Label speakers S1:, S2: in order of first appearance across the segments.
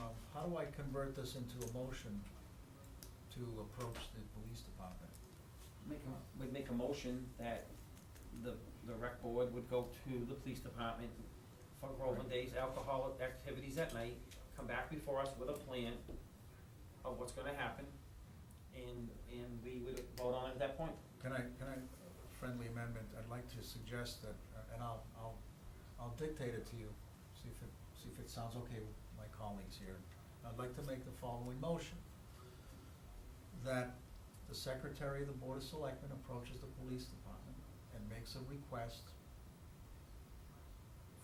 S1: um, how do I convert this into a motion to approach the police department?
S2: Make a, would make a motion that the, the rec board would go to the police department for Groveland Days, alcoholic activities at night, come back before us with a plan of what's gonna happen, and, and we would vote on it at that point.
S1: Can I, can I, friendly amendment, I'd like to suggest that, uh, and I'll, I'll, I'll dictate it to you, see if it, see if it sounds okay with my colleagues here. I'd like to make the following motion. That the secretary of the Board of Selectmen approaches the police department and makes a request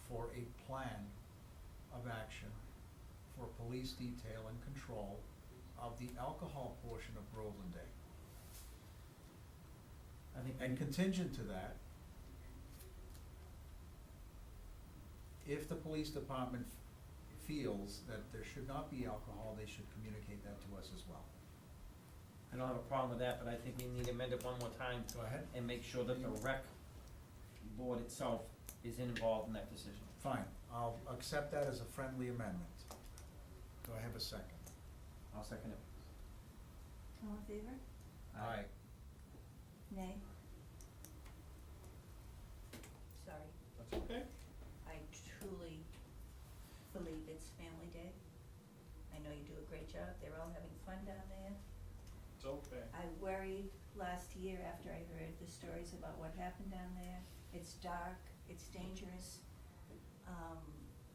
S1: for a plan of action for police detail and control of the alcohol portion of Groveland Day.
S2: I think.
S1: And contingent to that, if the police department f- feels that there should not be alcohol, they should communicate that to us as well.
S2: I don't have a problem with that, but I think we need to amend it one more time
S1: Go ahead.
S2: and make sure that the rec board itself is involved in that decision.
S1: Fine, I'll accept that as a friendly amendment. Do I have a second?
S2: I'll second it.
S3: All in favor?
S1: Aye.
S3: Nay. Sorry,
S2: That's okay.
S3: I truly believe it's family day. I know you do a great job, they're all having fun down there.
S4: It's okay.
S3: I worried last year after I heard the stories about what happened down there. It's dark, it's dangerous. Um,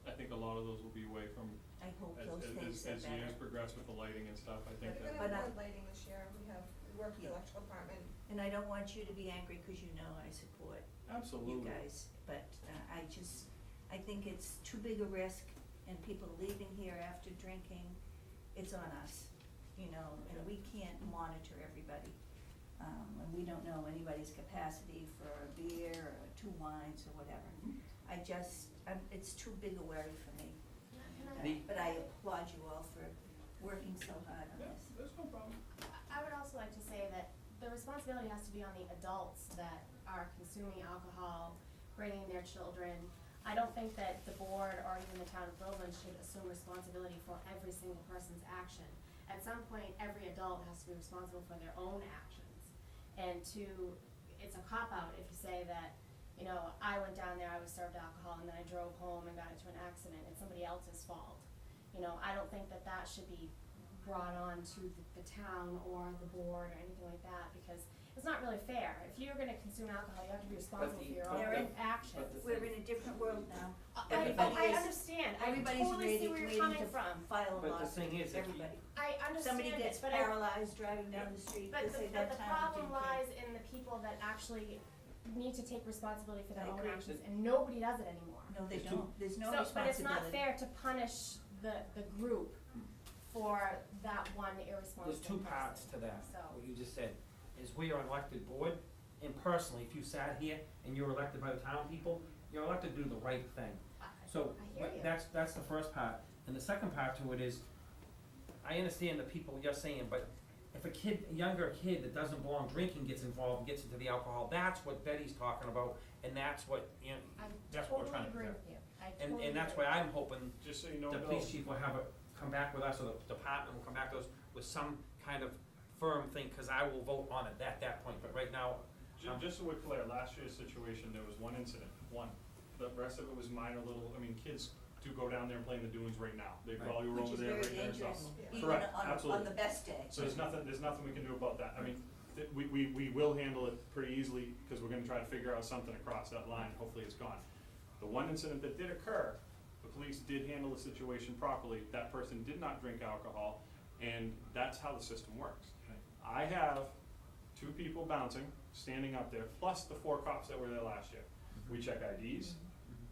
S4: I think a lot of those will be away from,
S3: I hope
S4: as,
S3: those things
S4: as,
S3: are
S4: as
S3: better.
S4: years progress with the lighting and stuff, I
S5: We're
S4: think that,
S5: gonna
S3: But I-
S5: have more lighting this year, we have, we work with
S3: Yeah.
S5: the electrical department,
S3: And I don't want you to be angry, cause you know I support you
S4: absolutely.
S3: guys, but uh, I just, I think it's too big a risk and people leaving here after drinking, it's on us, you know, and we can't monitor everybody. Um, and we don't know anybody's capacity for a beer or two wines or whatever.
S2: Mm-hmm.
S3: I just, I'm, it's too big a worry for me. Uh,
S2: The-
S3: But I applaud you all for working so hard on
S4: Yeah,
S3: this.
S4: there's no problem.
S6: I would also like to say that the responsibility has to be on the adults that are consuming alcohol, bringing their children. I don't think that the board or even the town of Groveland should assume responsibility for every single person's action. At some point, every adult has to be responsible for their own actions. And to, it's a cop-out if you say that, you know, I went down there, I was served alcohol, and then I drove home and got into an accident, it's somebody else's fault. You know, I don't think that that should be brought on to the, the town or the board or anything like that, because it's not really fair. If you're gonna consume alcohol, you have to be responsible for
S2: the-
S6: your
S2: but
S3: the-
S6: own
S2: but the
S6: actions.
S3: We're in a different world now.
S6: I, I-
S3: everybody
S6: I
S3: is-
S6: understand, I
S3: Everybody's
S6: totally see
S3: ready,
S6: where
S3: waiting
S6: you're coming
S3: to
S6: from.
S3: file
S2: But
S3: a
S2: the
S3: lawsuit,
S2: thing is, if you-
S3: everybody.
S6: I understand
S3: somebody
S6: it,
S3: gets
S6: but I-
S3: paralyzed driving down the street,
S6: But
S3: they say
S6: the, but
S3: that
S6: the
S3: time
S6: problem lies in the people that actually need to take responsibility for
S3: I
S6: their own
S3: agree.
S6: actions, and nobody does it anymore.
S3: No, they
S2: It's
S3: don't, there's no
S6: So, but it's not
S3: responsibility.
S6: fair to punish the, the group for that one irresponsible
S2: There's two
S6: person.
S2: parts to that,
S6: So-
S2: what you just said, is we are an elected board, and personally, if you sat here and you were elected by the town people, you're elected to do the right thing.
S6: I-
S2: So,
S6: I hear
S2: wh-
S6: you.
S2: that's, that's the first part, and the second part to it is, I understand the people you're saying, but if a kid, a younger kid that doesn't belong drinking gets involved, and gets into the alcohol, that's what Betty's talking about, and that's what, you know,
S6: I
S2: that's what we're trying to do.
S6: totally agree with you, I totally
S2: And, and that's
S6: agree.
S2: why I'm hoping
S4: Just so you know,
S2: the
S4: Bill,
S2: police chief will have a, come back with us, or the department will come back to us with some kind of firm thing, cause I will vote on it at that point, but right now,
S4: ju- just so we're clear, last year's situation, there was one incident, one. The rest of it was minor little, I mean, kids do go down there and play in the dunes right now. They
S2: Right.
S4: probably were over there right
S3: Which is
S4: there
S3: very
S4: and stuff.
S3: dangerous,
S5: Yeah.
S3: even
S4: Correct,
S3: on, on
S4: absolutely.
S3: the best day.
S4: So there's nothing, there's nothing we can do about that. I mean, th- we, we, we will handle it pretty easily, because we're gonna try to figure out something across that line, hopefully it's gone. The one incident that did occur, the police did handle the situation properly, that person did not drink alcohol, and that's how the system works. I have two people bouncing, standing up there, plus the four cops that were there last year.
S2: Mm-hmm.
S4: We check IDs,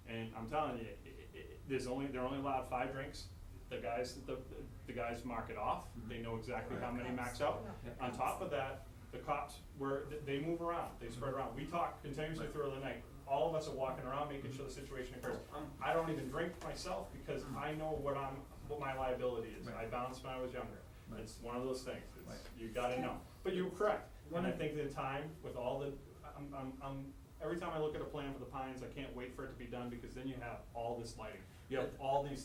S4: and I'm telling you, i i i there's only, they're only allowed five drinks. The guys, the, the guys mark it off,
S2: Mm-hmm.
S4: they know exactly how many max out. On top of that, the cops were, th- they move around, they spread
S2: Mm-hmm.
S4: around. We talk continuously throughout the night. All of us are walking around, making sure the situation occurs.
S2: Mm-hmm. Oh, I'm, Mm-hmm.
S4: I don't even drink myself because I know what I'm, what my liability is. I
S2: Right.
S4: bounced when I was younger.
S2: Right.
S4: It's one of those things, it's,
S2: Right.
S4: you gotta know. But you're correct, and I
S2: One-
S4: think the time with all the, I'm, I'm, I'm, every time I look at a plan for the Pines, I can't wait for it to be done because then you have all this lighting. You have all these